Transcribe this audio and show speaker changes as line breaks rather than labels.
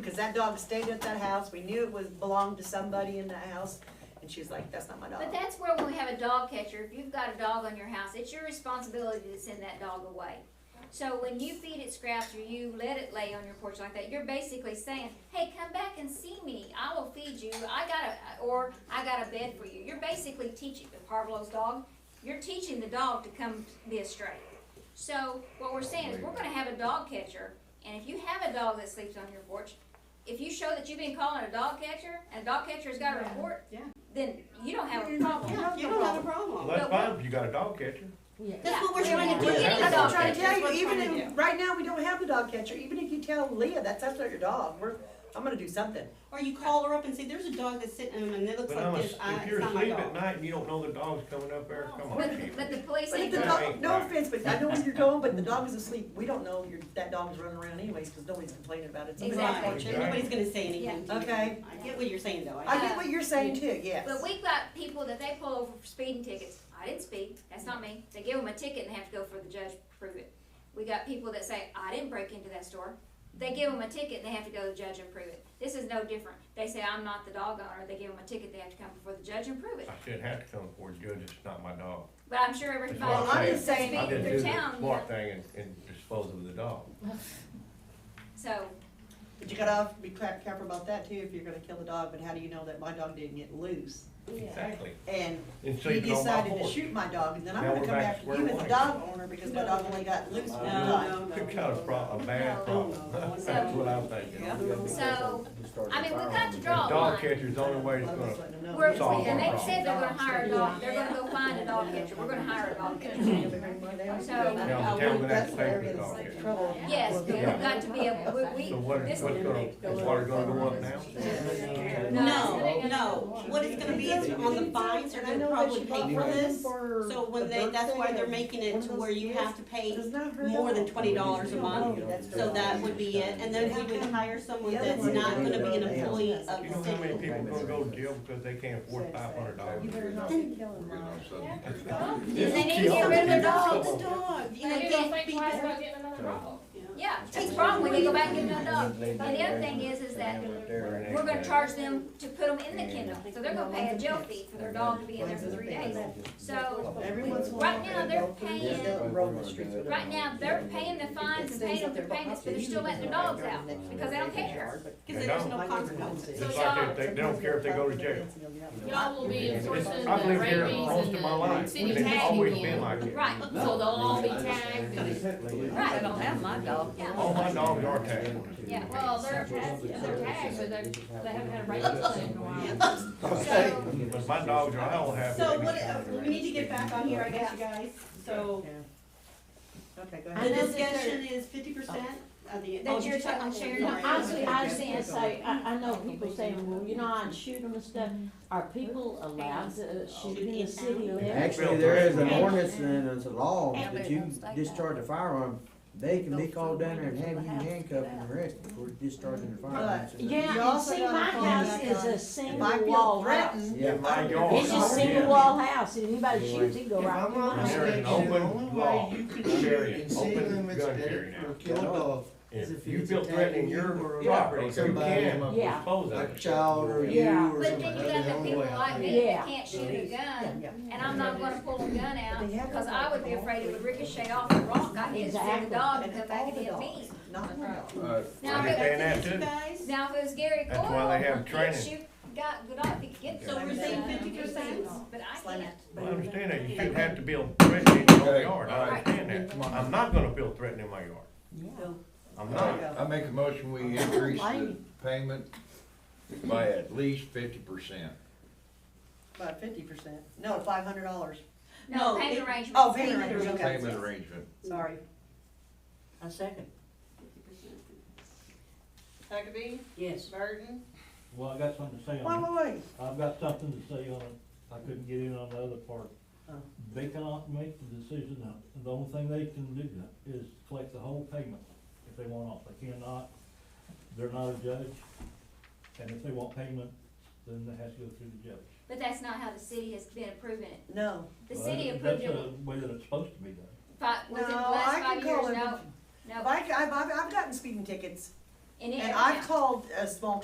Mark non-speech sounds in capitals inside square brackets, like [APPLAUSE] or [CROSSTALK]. Because that dog stayed at that house, we knew it was, belonged to somebody in that house, and she was like, that's not my dog.
But that's where when we have a dog catcher, if you've got a dog on your house, it's your responsibility to send that dog away. So when you feed it scraps or you let it lay on your porch like that, you're basically saying, hey, come back and see me. I will feed you. I got a, or I got a bed for you. You're basically teaching, Parvolo's dog, you're teaching the dog to come be a stray. So what we're saying is we're gonna have a dog catcher, and if you have a dog that sleeps on your porch, if you show that you've been calling a dog catcher, and a dog catcher's got a report,
Yeah.
then you don't have a problem.
You don't have a problem.
Well, that's fine, if you got a dog catcher.
That's what we're
Yeah.
trying to do.
We
have
That's
a
what we're
dog
trying to do.
tell
That's
you,
what we're
even
trying to
if,
do.
right now, we don't have the dog catcher, even if you tell Leah, that's, that's not your dog, we're, I'm gonna do something.
Or you call her up and say, there's a dog that's sitting on and it looks
But I'm,
like
a-
this. I-
if
It's
you're
not my
asleep at
dog.
night and you don't know the dog's coming up there, come on,
But,
Chief.
but the police
But if
ain't
the
gonna,
dog, no offense, but I know where you're going, but the dog is asleep, we don't know your, that dog's running around anyways, cause nobody's complaining about it. Somebody's
Exactly.
watching.
Right. Nobody's gonna say anything to you.
Okay.
I get what you're saying though.
I get what you're saying too, yes.
but we've got people that they pull over for speeding tickets. I didn't speed, that's not me. They give them a ticket and they have to go for the judge to prove it. We got people that say, I didn't break into that store. They give them a ticket and they have to go to the judge and prove it. This is no different. They say, I'm not the dog owner. They give them a ticket, they have to come before the judge and prove it.
I shouldn't have to come before a judge, it's not my dog.
But I'm sure
Well, I'm
everybody that's
just saying-
I
speeding
didn't do
through
the
town, you know,
smart thing and, and dispose of the dog.
so,
But you gotta have to be crap careful about that too, if you're gonna kill the dog, but how do you know that my dog didn't get loose?
Exactly.
And
And
you
sleeping on my
decided to
[LAUGHS] porch.
shoot my dog, and then I'm
Now
gonna
we're
come
back to
after
square
you as
one
a
again.
dog owner, because my dog only got loose
No,
one
no,
time.
no.
You've got a pro, a bad problem. [LAUGHS] That's what I'm thinking.
Yeah.
so, I mean, we've got to draw a line.
Dog catcher's the only way it's
I'm
gonna,
just letting them know.
We're,
It's all
and
our
they
problem.
said they're gonna hire a dog, they're gonna go find a dog catcher, we're gonna hire a dog catcher.
now the town gonna have to pay for the dog catcher.
Trouble.
Yes, but we've
Yeah.
got to be able, we,
So what,
this-
what's gonna, is water gonna go up now?
No, no, what it's gonna be is on the fines, they're gonna probably pay for this. So when they, that's why they're making it to where you have to pay more than twenty dollars a month. So that would be it, and then we would hire someone that's not gonna be an employee of
You know
the
how many
city.
people gonna go to jail because they can't afford five hundred dollars?
Then they need to get rid of their dogs.
The dog, you know,
And you
they
don't think
feed
twice
the-
about getting another problem.
yeah, it's wrong when they go back and get another dog. And the other thing is, is that we're gonna charge them to put them in the kennel, so they're gonna pay a jail fee for their dog to be in there for three days. So, right now, they're paying, right now, they're paying the fines and paying them their payments, but they're still letting their dogs out, because they don't care.
Cause there's no consequences.
It's like they, they they don't care if they go to jail.
Y'all will be enforcing
I've
the
lived here
rabies
most of
and
my
the
life, and
city
it's always
tagging
been
in.
like it.
Right,
So they'll all be tagged and,
right.
I don't have my dog.
All my dogs are tagged.
Yeah,
well, they're tagged, they're tagged, but they, they haven't had a rabies plan in a while.
So,
But my dogs are, I'll have.
So what, uh, we need to get back on here, I guess, you guys, so.
Okay, go
The
ahead.
discussion is fifty percent of the.
That
oh,
you're
did you-
talking- sharing
Sorry.
No, honestly, I was gonna say, I, I know people saying, well, you know, I'd shoot them and stuff, are people allowed to shoot in the city limits?
Actually, there is an ordinance and it's a law that you discharge a firearm, they can be called down there and have you handcuffed and arrested for discharging the firearm.
You
Yeah, and
also
see,
gotta
my
find
house
out,
is
uh,
a
If I
single
feel
wall house.
threatened.
Yeah.
In my yard.
It's a single wall house, and anybody shoots, it go right through my
There
house.
is an open law, carry, open gun carry now.
Kill a dog,
If you feel threatening your property, you can
Yeah.
dispose of
a
it.
child or you
Yeah.
or
but then you
somebody,
got
the
the
only
people
way
like
out.
me
Yeah.
that can't shoot a gun, and I'm not gonna pull a gun out, because I would be afraid it would ricochet off the rock, I hit the
Exactly.
dog and
And
come
if
back
all
and
the
hit
dogs,
me.
not my dog.
Now,
Right.
if it,
And that
You
too.
guys,
now if it was Gary
That's why they have
Coyle, he'd
training.
shoot, got, good off, he could get.
So we're
the
saying
gun.
50%?
But I
Slam
can't.
it.
Well, I understand that, you shouldn't have to feel threatened in your own
Okay,
yard,
all
I
right.
understand that. I'm not gonna feel threatened in my yard, I'm not.
I make a motion, we increase the payment by at least fifty percent.
About fifty percent, Oh. no, five hundred dollars.
No,
No,
payment
it-
arrangement.
Oh, payment arrangement, okay.
Payment arrangement.
Sorry.
A second,
Huckabee,
yes.
Burton,
Well, I got something to say
Wait,
on it.
wait, wait.
I've got something to say on it. I couldn't get in on the other part.
Oh.
They cannot make the decision now. The only thing they can do is collect the whole payment if they want off. They cannot, they're not a judge. And if they want payment, then they have to go through the judge.
But that's not how the city has been approving it.
No,
The
Well,
city
that's-
approved it,
That's the way that it's supposed to be done.
five, was it the
No, I
last
can
five
call
years?
it
No,
If
no,
I, I've, I've, I've gotten speeding tickets
And it-
And I've called a small